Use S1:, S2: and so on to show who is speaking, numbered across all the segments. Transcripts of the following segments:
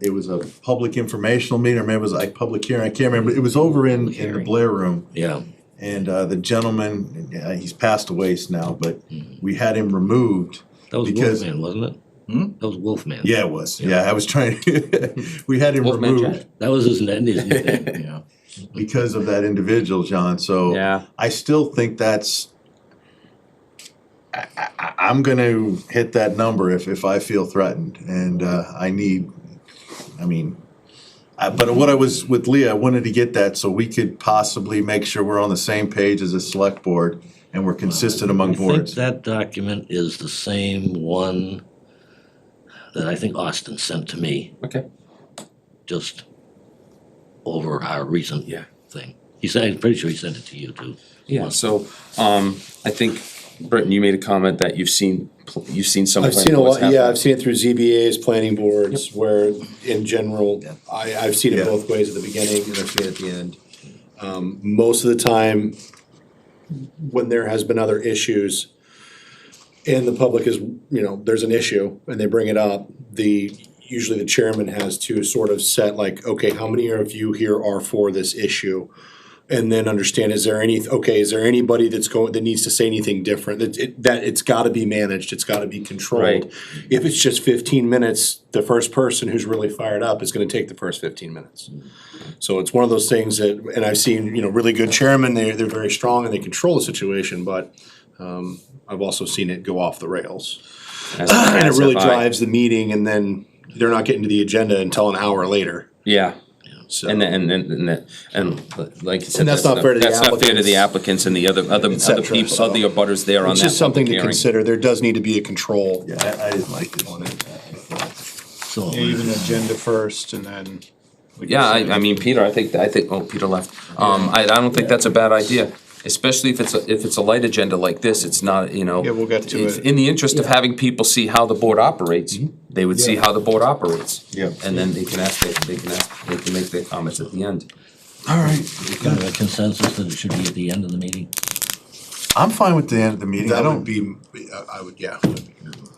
S1: it was a public informational meeting, or maybe it was like public hearing, I can't remember, it was over in, in the Blair Room.
S2: Yeah,
S1: And, uh, the gentleman, uh, he's passed away now, but we had him removed.
S2: that was
S1: Because-
S2: Wolfman, wasn't it? That was Wolfman.
S1: Yeah, it was, yeah, I was trying, we had him
S3: Wolfman Jack.
S1: removed
S2: That was his, that is his nickname.
S3: Yeah.
S1: because of that individual, John, so.
S3: Yeah.
S1: I still think that's. I, I, I'm going to hit that number if, if I feel threatened, and uh, I need. I mean, I, but what I was with Leah, I wanted to get that so we could possibly make sure we're on the same page as a select board and we're consistent among
S2: I think
S1: boards.
S2: that document is the same one that I think Austin sent to me,
S3: Okay.
S2: just over our recent
S3: Yeah.
S2: thing. He said, I'm pretty sure he sent it to you too.
S3: Yeah. So um, I think Britton, you made a comment that you've seen pl- you've seen some.
S4: I've
S3: planning
S4: seen a
S3: boards
S4: lot, yeah,
S3: happen.
S4: I've seen it through ZBAs, planning boards, where in general, I, I've seen
S1: Yeah.
S4: it both ways at the beginning and I've seen it at the end. Um, most of the time, when there has been other issues and the public is, you know, there's an issue and they bring it up, the, usually the chairman has to sort of set like, okay, how many of you here are for this issue? and then understand, is there any, okay, is there anybody that's going, that needs to say anything different? That, it- that it's gotta be managed, it's gotta be
S3: Right.
S4: controlled. If it's just fifteen minutes, the first person who's really fired up is gonna take the first fifteen minutes. So it's one of those things that, and I've seen, you know, really good chairmen, they, they're very strong and they control the situation, but, um, I've also seen it go off the rails.
S3: As-
S4: And it
S3: as
S4: really
S3: have I.
S4: drives the meeting and then they're not getting to the agenda until an hour later,
S3: Yeah.
S4: so.
S3: And then, and and and that- and like you said,
S4: And that's not fair to the
S3: That's not fair to the
S4: applicants.
S3: applicants and the other other other
S4: cetera,
S3: people,
S4: so-
S3: other butters there on that.
S4: It's just something
S3: public
S4: to
S3: hearing.
S4: consider, there does need to be a control.
S1: Yeah, I, I didn't like this one.
S2: So,
S5: Yeah, even agenda first and then.
S3: Yeah, I, I mean, Peter, I think, I think, oh, Peter left. Um, I, I don't think that's a bad idea, especially if it's, a- if it's a light agenda like this, it's not, you know.
S5: Yeah, we'll get to
S3: If-
S5: it.
S3: In the interest of having people see how the board operates, they would see how the board operates.
S1: Mm-hmm. Yeah.
S3: And then they can ask, they, they can ask, they can make their comments at the end.
S1: All right,
S2: kind of a consensus that it should be at the end of the meeting.
S1: I'm fine with the end of the meeting. I
S4: That
S1: don't
S4: would
S1: be.
S4: be, I I would, yeah.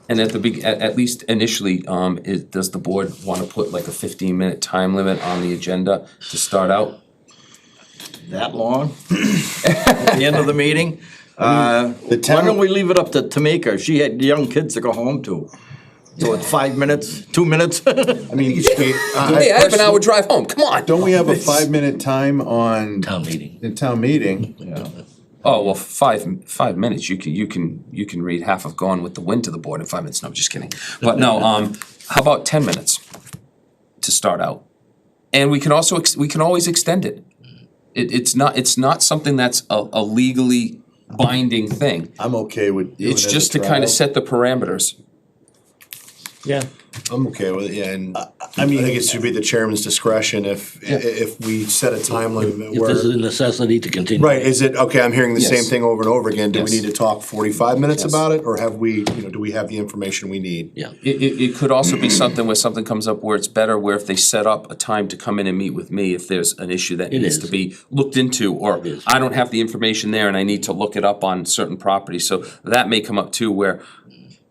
S3: And at the big, at, at least initially, um, is, does the board wanna put like a fifteen minute time limit on the agenda to start out?
S6: that long at the end of the meeting. Uh,
S1: The
S6: Why
S1: town-
S6: don't we leave it up to Tamika? She had young kids to go home to. So it's five minutes, two minutes?
S1: I mean,
S3: Hey, I have an
S1: personally-
S3: hour drive home, come on!
S1: Don't we have a five minute time on
S2: Town meeting.
S1: the town meeting?
S3: Oh well, five five minutes. You can you can you can read half of Gone with the Wind to the board in five minutes. No, I'm just kidding. But no, um, how about ten minutes to start out? And we can also ex- we can always extend it. it. It's not it's not something that's a, a legally binding thing.
S1: I'm okay with. doing
S3: It's
S1: it as
S3: just
S1: a
S3: to kind
S1: trial.
S3: of set the parameters.
S2: Yeah.
S4: I'm okay with it, yeah, and I
S1: I mean,
S4: think it should be the chairman's discretion if, i- if we set a time limit
S2: If there's
S4: where.
S2: a necessity to continue.
S4: Right, is it, okay, I'm hearing the same
S3: Yes.
S4: thing over and over again, do we
S3: Yes.
S4: need to talk forty-five minutes
S3: Yes.
S4: about it, or have we, you know, do we have the information we need?
S2: Yeah.
S3: It, it, it could also be something where something comes up where it's better, where if they set up a time to come in and meet with me, if there's an issue that
S2: It
S3: needs
S2: is.
S3: to be looked into, or
S2: is.
S3: I don't have the information there and I need to look it up on certain properties, so that may come up too, where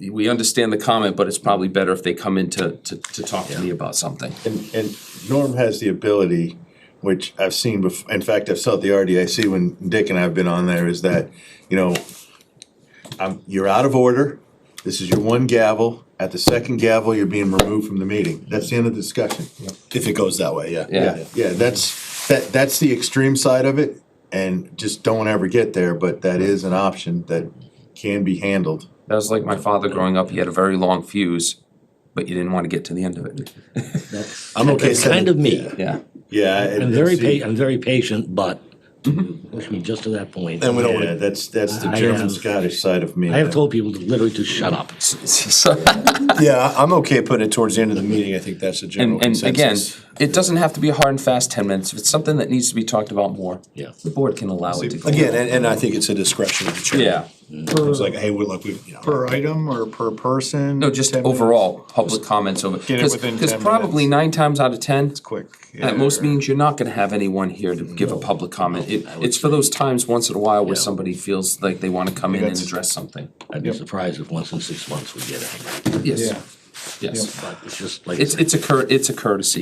S3: we understand the comment, but it's probably better if they come in to, to, to talk to me about something.
S1: And, and Norm has the ability, which I've seen bef- in fact, I've saw the RDIC when Dick and I have been on there, is that, you know, um, you're out of order, this is your one gavel, at the second gavel, you're being removed from the meeting, that's the end of the discussion.
S4: If it goes that way, yeah.
S3: Yeah.
S1: Yeah, yeah, that's, that, that's the extreme side of it, and just don't ever get there, but that is an option that can be handled.
S3: That was like my father growing up, he had a very long fuse, but you didn't wanna get to the end of it.
S2: That's
S4: I'm okay
S2: that's kind
S4: setting,
S2: of me.
S3: Yeah.
S1: Yeah. and-
S2: I'm very
S1: and see-
S2: pa, I'm very patient, but push me just to that point.
S4: and we don't
S1: Yeah,
S4: wanna,
S1: that's, that's the
S2: I
S1: German
S2: have-
S1: Scottish side of me.
S2: I have told people to literally to shut up.
S3: So-
S4: yeah, I- I'm okay putting it towards the end of the meeting, I think that's the general
S3: And, and again,
S4: consensus.
S3: it doesn't have to be a hard and fast ten minutes, if it's something that needs to be talked about more.
S2: Yeah.
S3: The board can allow it to go.
S4: Again, and, and I think it's a discretion of the chairman.
S3: Yeah,
S4: It's like, hey, we're like, we, you know.
S5: Per item or per person?
S3: no, just
S5: 10 minutes?
S3: overall, public comments over,
S5: it
S3: cause,
S5: within
S3: 'cause
S5: 10
S3: probably nine times out of ten,
S5: Quick.
S3: at most meetings, you're not gonna have anyone here to give a public comment. It, it's for those times once in a while where somebody feels like they wanna come in and address something.
S2: I'd be surprised if once in six months we get it.
S3: Yes, Yes,
S2: but it's just like. I
S3: it's,
S2: said.
S3: it's a cur, it's a courtesy.